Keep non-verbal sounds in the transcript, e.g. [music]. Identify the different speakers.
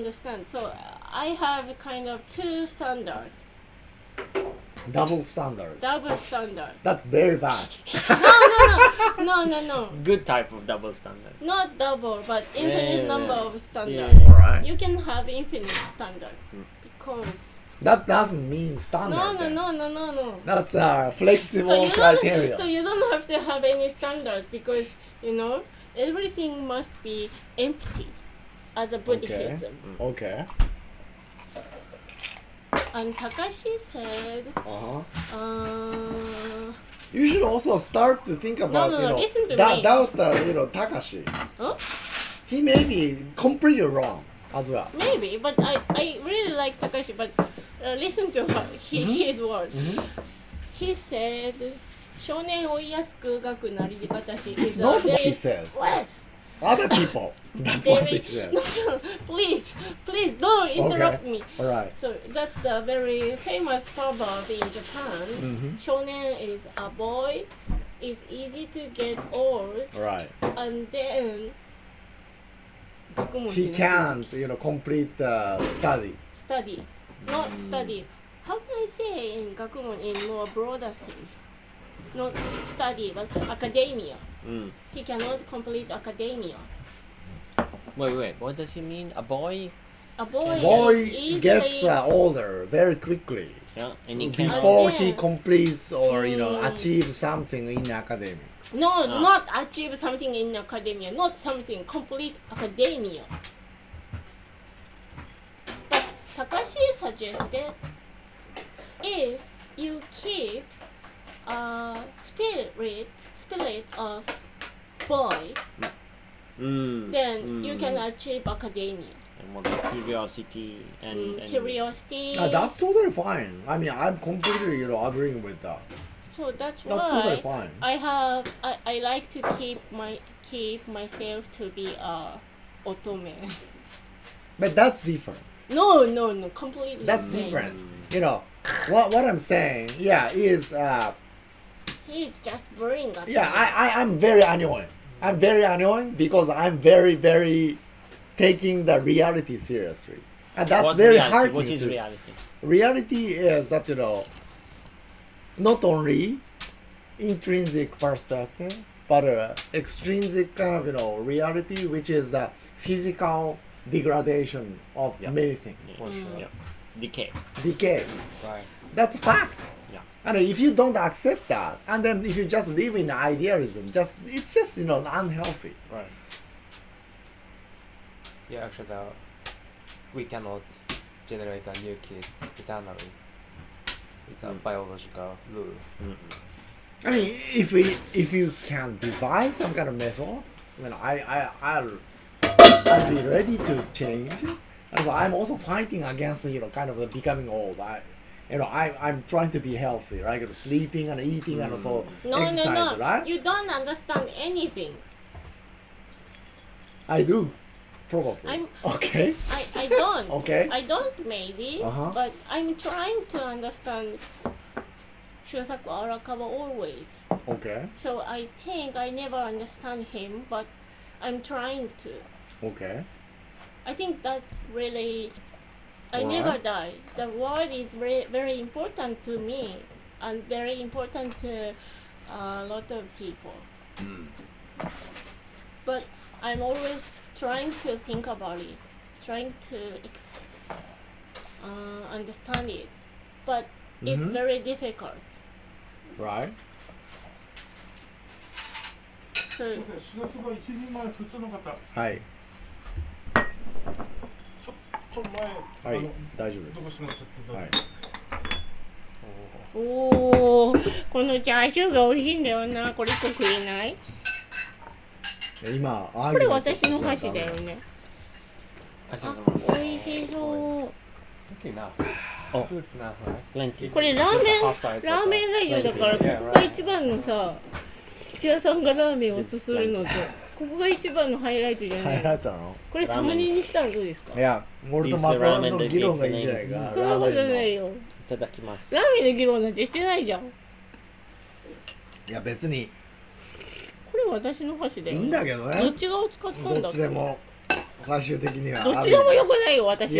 Speaker 1: understand. So I have a kind of two standard,
Speaker 2: Double standard.
Speaker 1: double standard.
Speaker 2: That's very bad.
Speaker 1: No, no, no,
Speaker 3: Good type of double standard.
Speaker 1: not double, but
Speaker 3: Yeah,
Speaker 1: infinite
Speaker 3: yeah,
Speaker 1: number
Speaker 3: yeah.
Speaker 1: of standard.
Speaker 3: Yeah.
Speaker 2: Alright.
Speaker 1: You can have infinite standard because
Speaker 2: That doesn't mean standard.
Speaker 1: no, no,
Speaker 2: then.
Speaker 1: no, no, no, no.
Speaker 2: That's a flexible
Speaker 1: So you
Speaker 2: criteria.
Speaker 1: don't, so you don't have to have any standards because you know everything must be empty as a Buddhism.
Speaker 2: Okay.
Speaker 1: And Takashi said,
Speaker 2: Uh huh.
Speaker 1: uh,
Speaker 2: You should also start to think about
Speaker 1: no,
Speaker 2: you
Speaker 1: no,
Speaker 2: know
Speaker 1: listen to
Speaker 2: that
Speaker 1: me.
Speaker 2: doubt uh, you know Takashi.
Speaker 1: Huh?
Speaker 2: He may be completely wrong as well.
Speaker 1: maybe, but I, I really like Takashi, but uh, listen to her, he,
Speaker 2: Mm-hmm.
Speaker 1: his words. He said, 少年追いやすく学くなり方し
Speaker 2: It's
Speaker 1: is a
Speaker 2: not what he
Speaker 1: very-
Speaker 2: says.
Speaker 1: What?
Speaker 2: Other
Speaker 1: [laughs]
Speaker 2: people. That's what he
Speaker 1: Very,
Speaker 2: said.
Speaker 1: no, no, please, please don't interrupt me.
Speaker 2: All right.
Speaker 1: So that's the very famous proverb in Japan.
Speaker 2: Mm-hmm.
Speaker 1: Shonen is a boy, is easy to get old,
Speaker 2: All right.
Speaker 1: [laughs] and then
Speaker 2: He can't you know complete uh, study.
Speaker 1: study, not study. How can I say in gakumon in more broader sense? Not study, but academia.
Speaker 3: Mm.
Speaker 1: He cannot complete academia.
Speaker 3: Wait, wait. What does he mean? A boy?
Speaker 1: A boy, is
Speaker 2: Boy
Speaker 1: easily
Speaker 2: gets uh, older very quickly
Speaker 3: Yeah. And he can.
Speaker 2: before
Speaker 1: Yeah.
Speaker 2: he completes or you know
Speaker 1: Mm.
Speaker 2: achieve something in academics.
Speaker 1: No,
Speaker 3: Ah.
Speaker 1: not achieve something in academia, not something complete academia. But Takashi suggested if you keep a spirit spirit of boy,
Speaker 3: Mm.
Speaker 1: then you
Speaker 3: Mm.
Speaker 1: can achieve academia.
Speaker 3: And what about curiosity and,
Speaker 1: Mm,
Speaker 3: and
Speaker 1: curiosity.
Speaker 2: Uh, that's totally fine. I mean, I'm completely you know agreeing with that.
Speaker 1: so that's,
Speaker 2: That's
Speaker 1: why
Speaker 2: totally fine.
Speaker 1: I have I, I like to keep my keep myself to be a otome. [laughs]
Speaker 2: But that's different.
Speaker 1: No, no, no, completely.
Speaker 2: That's
Speaker 1: different.
Speaker 2: different. You know, what what I'm saying, yeah, is uh,
Speaker 1: He's just boring. at
Speaker 2: yeah,
Speaker 1: the moment.
Speaker 2: I, I I'm very annoying. I'm very annoying because I'm very very taking the reality seriously, and that's
Speaker 3: what
Speaker 2: very
Speaker 3: reality?
Speaker 2: hard.
Speaker 3: What is
Speaker 2: to,
Speaker 3: reality?
Speaker 2: reality is that you know, not only intrinsic perspective, but uh, extrinsic kind of you know reality, which is the physical degradation of
Speaker 3: Yeah.
Speaker 2: many things,
Speaker 3: For sure. Hmm. Yeah. Decay.
Speaker 2: decay.
Speaker 3: Right.
Speaker 2: That's a fact.
Speaker 3: Yeah.
Speaker 2: And if you don't accept that, and then if you just live in idealism, just it's just you know unhealthy.
Speaker 4: Right. Yeah, actually, the, we cannot generate a new kids eternally. It's a biological rule.
Speaker 2: I mean, if we if you can devise some kind of methods, I mean, I I I'll, I'll be ready to change. And so I'm also fighting against you know kind of the becoming old. I you know I I'm trying to be healthy, right? You know, sleeping and eating and also
Speaker 1: Mm. no,
Speaker 2: exercise,
Speaker 1: no, no.
Speaker 2: right?
Speaker 1: You don't understand anything.
Speaker 2: I do, probably.
Speaker 1: I'm-
Speaker 2: okay.
Speaker 1: I, I don't.
Speaker 2: Okay.
Speaker 1: I don't maybe.
Speaker 2: Uh-huh.
Speaker 1: But I'm trying to understand Shusaku Arakawa always.
Speaker 2: Okay.
Speaker 1: So I think I never understand him, but I'm trying to.
Speaker 2: Okay.
Speaker 1: I think that's really. I
Speaker 2: Why?
Speaker 1: never die. The word is very, very important to me, and very important to uh, a lot of people. But I'm always trying to think about it, trying to ex- uh, understand it. But it's
Speaker 2: Mhm.
Speaker 1: very difficult.
Speaker 2: Right.
Speaker 1: So
Speaker 5: すいません、しらすが一人前普通の方、
Speaker 2: はい。
Speaker 5: この
Speaker 2: は
Speaker 5: 前、あ
Speaker 2: い
Speaker 5: の、
Speaker 2: 大丈夫で
Speaker 5: どこ
Speaker 2: す。
Speaker 5: してもらっちゃって、
Speaker 2: はい。
Speaker 1: おーこのチャーシューが美味しいんだよなこれ1個食えない
Speaker 2: 今、
Speaker 1: これ私の箸だよね
Speaker 3: ありが
Speaker 1: あ
Speaker 3: とうございま
Speaker 1: 美味しそう
Speaker 4: Look at now.
Speaker 3: Oh.
Speaker 4: Good now, right?
Speaker 3: す。Plenty.
Speaker 1: これラーメン
Speaker 4: Just half size
Speaker 1: ラーメンラジオだからこ
Speaker 4: Yeah,
Speaker 1: こが一番のさ土屋さんがラーメンをすするのとここが一番のハイライトじ
Speaker 2: [laughs]
Speaker 1: ゃな
Speaker 2: ハイラ
Speaker 1: い
Speaker 2: イトなの
Speaker 1: これサムネにしたらどうですか
Speaker 2: いや、俺と松原の議論がいいんじゃないか。
Speaker 1: そんなことない
Speaker 2: い。
Speaker 1: よ
Speaker 3: いただきます
Speaker 1: ラ。ーメンの議論なんてしてないじゃんこ
Speaker 2: いや、別に
Speaker 1: れ私の箸だ
Speaker 2: いい
Speaker 1: よ
Speaker 2: んだけど
Speaker 1: どっ
Speaker 2: ね。
Speaker 1: ち側を使ったん
Speaker 2: ど
Speaker 1: だ
Speaker 2: っちでも。
Speaker 1: 最終的には
Speaker 2: どっちでもよくないよ私
Speaker 1: いや